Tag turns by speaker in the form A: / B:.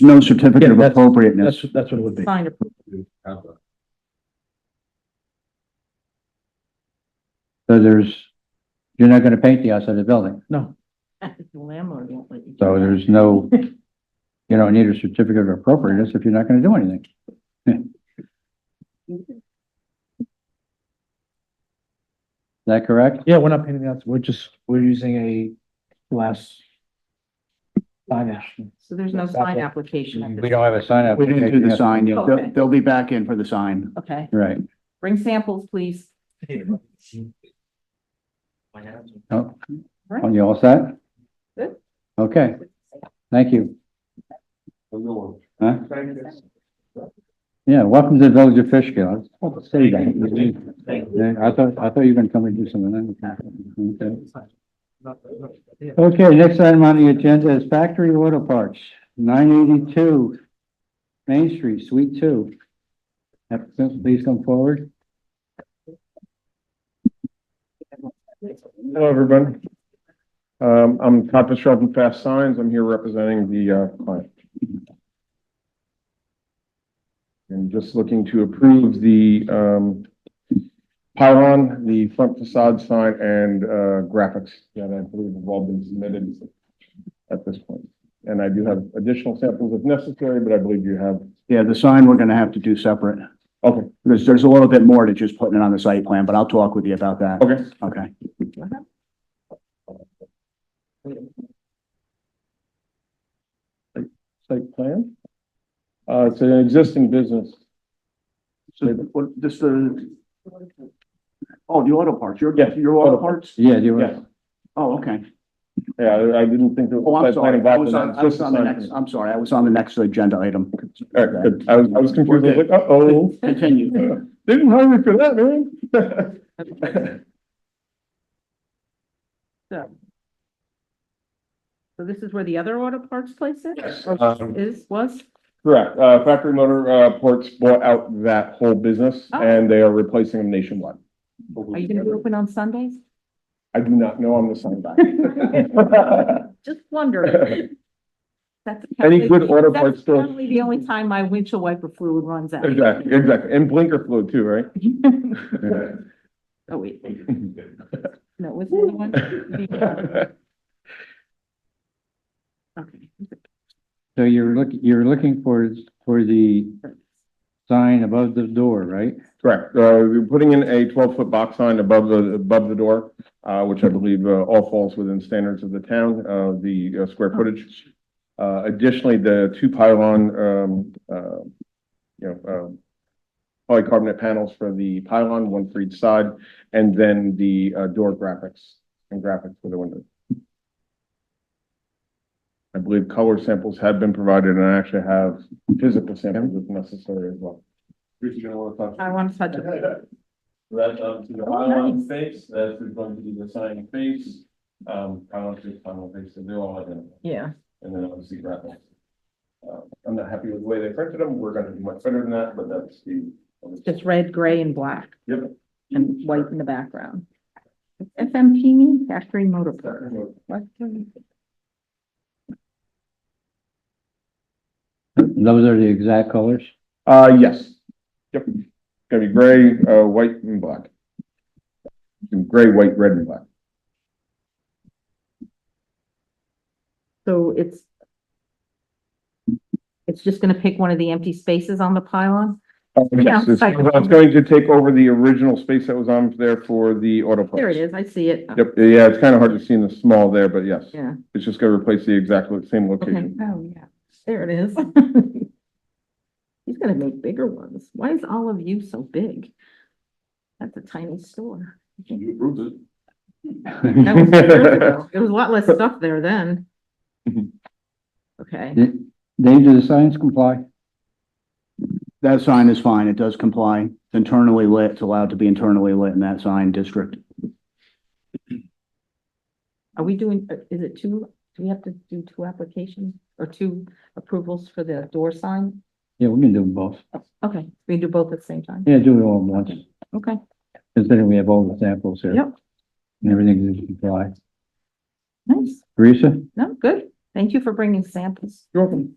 A: no certificate
B: Yeah,
A: of
B: that's-
A: appropriateness.
B: That's, that's what it would be.
C: Fine.
A: So there's, you're not gonna paint the outside of the building,
B: No,
C: The landlord won't let you. do
A: so
C: that.
A: there's no, you don't need a certificate of appropriateness if you're not gonna do anything. Is that correct?
B: yeah, we're not painting the outside. We're just, we're using a glass sign action.
C: So there's no sign application. at this-
A: We don't have a sign up.
D: We didn't do the sign yet.
C: Okay.
D: They'll, they'll be back in for the
E: Mm-hmm.
D: sign.
C: Okay,
A: Right,
C: bring samples, please.
A: oh, are you all set?
C: Good.
A: Okay, thank you. Huh? Yeah, welcome to the village of Fishkill. I was supposed to say that. Yeah, I thought, I thought you were gonna come and do something. Okay. Okay, next item on the agenda is factory auto parts, nine eighty-two Main Street, Suite Two. Applicant, please come forward.
E: Hello, everyone. Um, I'm Todd Pastrell from Fast Signs. I'm here representing the, uh, client. And just looking to approve the, um, pylon, the front facade sign and, uh, graphics that I believe have all been submitted at this point. And I do have additional samples if necessary, but I believe you have,
D: Yeah, the sign we're gonna have to do separate.
E: okay,
D: There's, there's a little bit more to just putting it on the site plan, but I'll talk with you about that.
E: okay.
D: Okay.
E: Site plan? Uh, it's an existing business.
D: So what, this, the, oh, the auto parts, your,
E: Yeah,
D: your
E: auto
D: auto parts?
A: Yeah, do you
E: Yeah.
A: want?
D: Oh, okay.
E: Yeah, I I didn't think.
D: Oh, I'm sorry. I was on, I was on the next, I'm sorry, I was on the next agenda item.
E: All right, good. I was, I was confused. I was like, uh-oh.
D: Continue.
E: Didn't hire me for that, man.
C: So this is where the other auto parts place is?
E: Yes,
C: Or
E: um,
C: Is, was?
E: Correct. Uh, Factory Motor, uh, Ports bought out that whole business
C: Oh.
E: and they are replacing them nationwide.
C: Are you gonna be open on Sundays?
E: I do not know. I'm the sign guy.
C: Just wondering. That's.
E: Any good auto
C: that's
E: parts stores?
C: Probably the only time my windshield wiper fluid runs out.
E: Exactly, exactly. And blinker fluid too, right?
C: Oh, wait, no, was there one? uh, Okay.
A: So you're looking, you're looking for, for the sign above the door, right?
E: Correct. Uh, we're putting in a twelve-foot box sign above the, above the door, uh, which I believe, uh, all falls within standards of the town, uh, the uh, square footage. Uh, additionally, the two pylon, um, uh, you know, um, polycarbonate panels for the pylon, one for each side, and then the, uh, door graphics and graphics for the window. I believe color samples have been provided and I actually have physical samples if necessary as well.
C: I want to touch it.
E: That's up to the
C: Oh,
E: pylon
C: nice.
E: face, that's going to be the sign face, um, pylon face, pylon face, so they're all identical,
C: Yeah,
E: and then obviously graphics. Uh, I'm not happy with the way they printed them, we're gonna do much better than that, but that's the.
C: just red, gray and black
E: Yep.
C: and white in the background. FMP mean factory motor. parts. What?
A: Those are the exact colors?
E: Uh, yes, yep, gonna be gray, uh, white and black. Gray, white, red and black.
C: So it's. It's just gonna pick one of the empty spaces on the pylon?
E: Yes, it's- I
C: Yeah, I-
E: was going to take over the original space that was on there for the auto parts.
C: There it is, I see it.
E: Yep, yeah, it's kind of hard to see in the small there, but yes.
C: Yeah.
E: It's just gonna replace the exact lo- same
C: Okay,
E: location.
C: oh, yeah, there it is. He's gonna make bigger ones. Why is all of you so big? That's a tiny store.
E: You approved it.
C: That was years ago. There was a lot less stuff there then.
E: Mhm.
C: Okay,
A: Dave, do the signs comply?
D: That sign is fine. It does comply. It's internally lit. It's allowed to be internally lit in that sign district.
C: are we doing, uh, is it two, do we have to do two applications or two approvals for the door sign?
A: Yeah, we can do them both.
C: Okay, we do both at the same time?
A: Yeah, do it all at once,
C: Okay,
A: considering we have all the samples here.
C: Yep.
A: And everything is comply.
C: nice.
A: Teresa?
C: No, good. Thank you for bringing samples.
E: You're welcome.